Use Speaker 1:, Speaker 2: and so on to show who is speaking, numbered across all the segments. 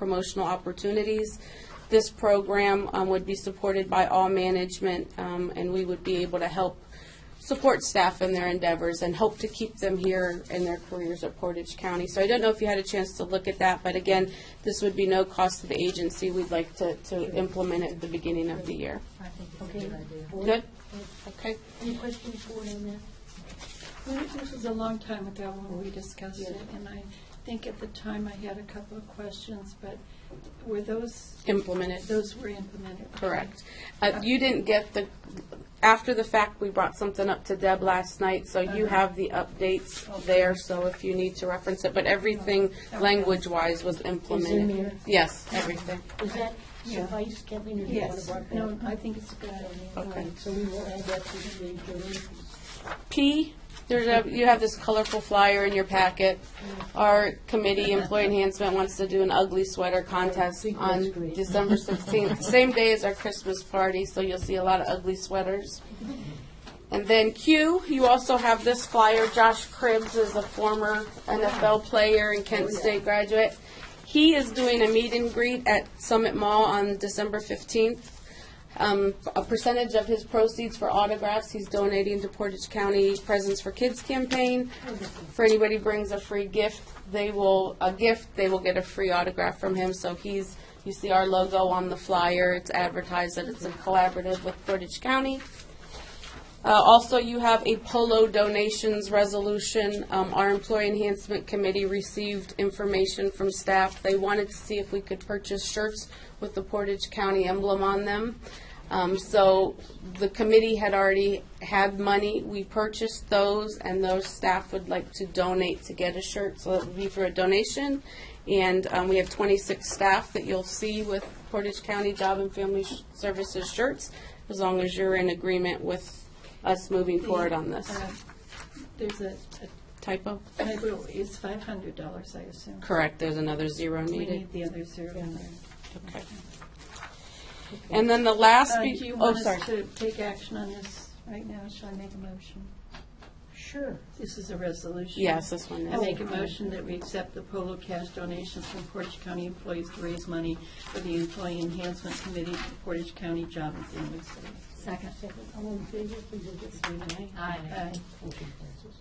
Speaker 1: promotional opportunities. This program um, would be supported by all management, um, and we would be able to help support staff in their endeavors and hope to keep them here in their careers at Portage County. So I don't know if you had a chance to look at that, but again, this would be no cost to the agency. We'd like to, to implement it at the beginning of the year.
Speaker 2: I think it's a good idea.
Speaker 1: Good? Okay.
Speaker 3: Any questions for it on that?
Speaker 4: Well, This was a long time ago when we discussed it, and I think at the time I had a couple of questions, but were those,
Speaker 1: Implement it.
Speaker 4: those were implemented?
Speaker 1: Correct. Uh, You didn't get the, after the fact, we brought something up to Deb last night, so you have the updates there, so if you need to reference it, but everything language-wise was implemented.
Speaker 3: there?
Speaker 1: Yes, everything.
Speaker 3: Does that suffice, Kathleen, or do you want to
Speaker 4: Yes,
Speaker 3: work
Speaker 4: no,
Speaker 3: that?
Speaker 4: I think it's a good idea.
Speaker 1: Okay.
Speaker 3: So we will add that to the agenda.
Speaker 1: P, there's a, you have this colorful flyer in your packet. Our committee, Employee Enhancement, wants to do an ugly sweater contest
Speaker 3: think that's
Speaker 1: on
Speaker 3: great.
Speaker 1: December sixteenth, same day as our Christmas party, so you'll see a lot of ugly sweaters. And then Q, you also have this flyer, Josh Cribbs is a former NFL player and Kent State graduate. He is doing a meet and greet at Summit Mall on December fifteenth um, a percentage of his proceeds for autographs, he's donating to Portage County Presents for Kids campaign. For anybody brings a free gift, they will, a gift, they will get a free autograph from him. So he's, you see our logo on the flyer, it's advertised that it's a collaborative with Portage County. Uh, Also, you have a polo donations resolution. Um, Our Employee Enhancement Committee received information from staff. They wanted to see if we could purchase shirts with the Portage County emblem on them. Um, So the committee had already had money. We purchased those, and those staff would like to donate to get a shirt, so it would be for a donation. And um, we have 26 staff that you'll see with Portage County Job and Family Services shirts, as long as you're in agreement with us moving forward on this.
Speaker 4: Uh, There's a,
Speaker 1: Typo?
Speaker 4: a typo, it's five hundred dollars, I assume.
Speaker 1: Correct, there's another zero
Speaker 4: We
Speaker 1: needed.
Speaker 4: need the other zero in there.
Speaker 1: Okay. And then the last,
Speaker 4: Uh,
Speaker 1: be-
Speaker 4: Do you
Speaker 1: oh,
Speaker 4: want
Speaker 1: sorry.
Speaker 4: us to take action on this right now? Shall I make a motion?
Speaker 3: Sure.
Speaker 4: This is a resolution.
Speaker 1: Yes, this one
Speaker 4: I
Speaker 1: is.
Speaker 4: make a motion that we accept the Polo cash donations from Portage County employees to raise money for the Employee Enhancement Committee for Portage County Job and Family Services.
Speaker 2: Second.
Speaker 3: Second, all in favor, please look at saying aye.
Speaker 4: Aye.
Speaker 3: Motion passes.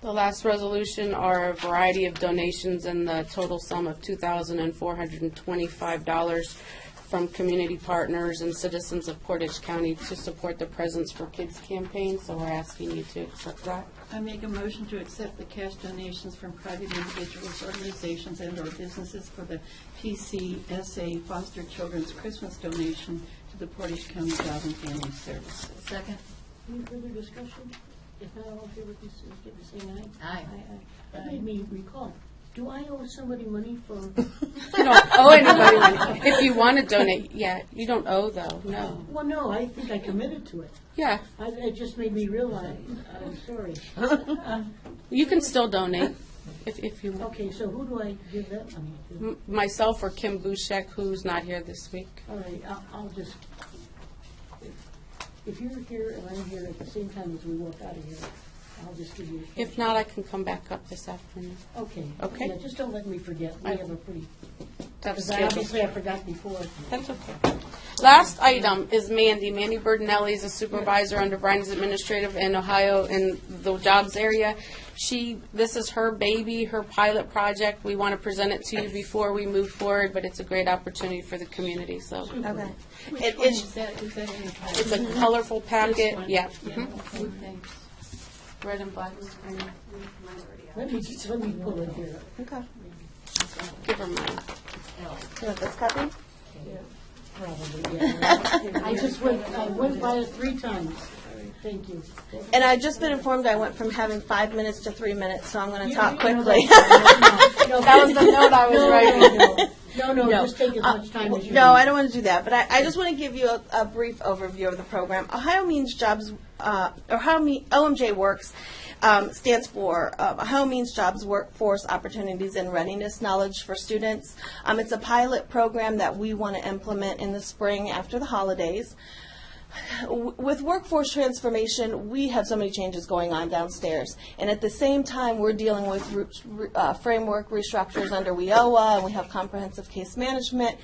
Speaker 1: The last resolution are a variety of donations in the total sum of $2,425 from community partners and citizens of Portage County to support the Presence for Kids campaign, so we're asking you to accept that.
Speaker 4: I make a motion to accept the cash donations from private individuals, organizations, and/or businesses for the PCSA Foster Children's Christmas donation to the Portage County Job and Family Services.
Speaker 2: Second.
Speaker 3: Any further discussion? If not, all in favor, please indicate by saying aye.
Speaker 2: Aye.
Speaker 3: Aye. That made me recall, do I owe somebody money for,
Speaker 1: You don't owe anybody money. If you want to donate, yeah, you don't owe though, no.
Speaker 3: well, no, I think I committed to it.
Speaker 1: Yeah,
Speaker 3: I- It just made me realize, I'm sorry.
Speaker 1: you can still donate if, if you want.
Speaker 3: Okay, so who do I give that money to?
Speaker 1: M- Myself or Kim Bushek, who's not here this week.
Speaker 3: All right, I'll, I'll just, if you're here and I'm here at the same time as we walk out of here, I'll just give you a.
Speaker 1: If not, I can come back up this afternoon.
Speaker 3: Okay.
Speaker 1: Okay.
Speaker 3: Yeah, just don't let me forget, we
Speaker 1: I-
Speaker 3: have a pretty,
Speaker 1: That's
Speaker 3: because I obviously I forgot before.
Speaker 1: That's okay. Last item is Mandy. Mandy Burdenelli is a supervisor under Bryan's Administrative in Ohio in the jobs area. She, this is her baby, her pilot project. We want to present it to you before we move forward, but it's a great opportunity for the community, so.
Speaker 2: Okay.
Speaker 4: Which
Speaker 1: It-
Speaker 4: one
Speaker 1: it's-
Speaker 4: is that, is that in the packet?
Speaker 1: It's a colorful
Speaker 4: This
Speaker 1: packet,
Speaker 4: one?
Speaker 1: yeah. Mm-hmm.
Speaker 4: Yeah, okay, thanks.
Speaker 1: Red and black.
Speaker 3: Let me, let me pull it here.
Speaker 5: Okay.
Speaker 1: Give her mine.
Speaker 5: You want this copy?
Speaker 3: Probably, yeah. I just went, I went by it three times. Thank you.
Speaker 5: And I've just been informed I went from having five minutes to three minutes, so I'm going to talk quickly.
Speaker 1: That was the note I was writing.
Speaker 3: No, no,
Speaker 5: No.
Speaker 3: just take as
Speaker 1: Uh,
Speaker 3: much time as you
Speaker 5: No, I
Speaker 3: need.
Speaker 5: don't want to do that, but I, I just want to give you a, a brief overview of the program. Ohio Means Jobs, uh, Ohio Me, OMJ Works um, stands for uh, Ohio Means Jobs Workforce Opportunities and Readiness Knowledge for Students. Um, it's a pilot program that we want to implement in the spring after the holidays. w- with workforce transformation, we have so many changes going on downstairs. And at the same time, we're dealing with re- uh, framework restructures under WIOA, and we have comprehensive case management.